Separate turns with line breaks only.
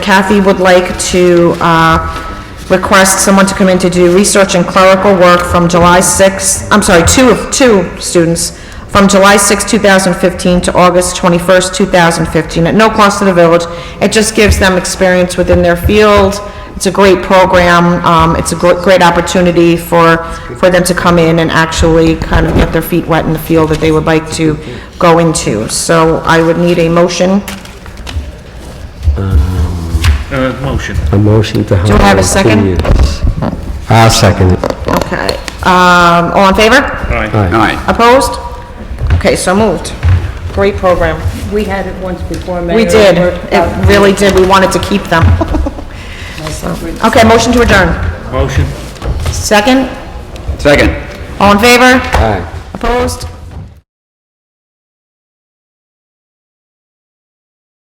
Kathy would like to uh, request someone to come in to do research and clerical work from July 6th, I'm sorry, two of, two students, from July 6, 2015 to August 21st, 2015, at no cost to the village. It just gives them experience within their field. It's a great program. Um, It's a gr- great opportunity for, for them to come in and actually kind of get their feet wet in the field that they would like to go into. So I would need a motion.
Uh, motion.
A motion to hire.
I have a second?
Yes. I'll second it.
Okay, um, all in favor?
Aye.
Aye.
Opposed? Okay, so moved. Great program.
We had it once before, Mayor.
We did,
It worked out
it really did, we wanted to keep them. So, Okay, motion to adjourn.
Motion.
Second?
Second.
All in favor?
Aye.
Opposed?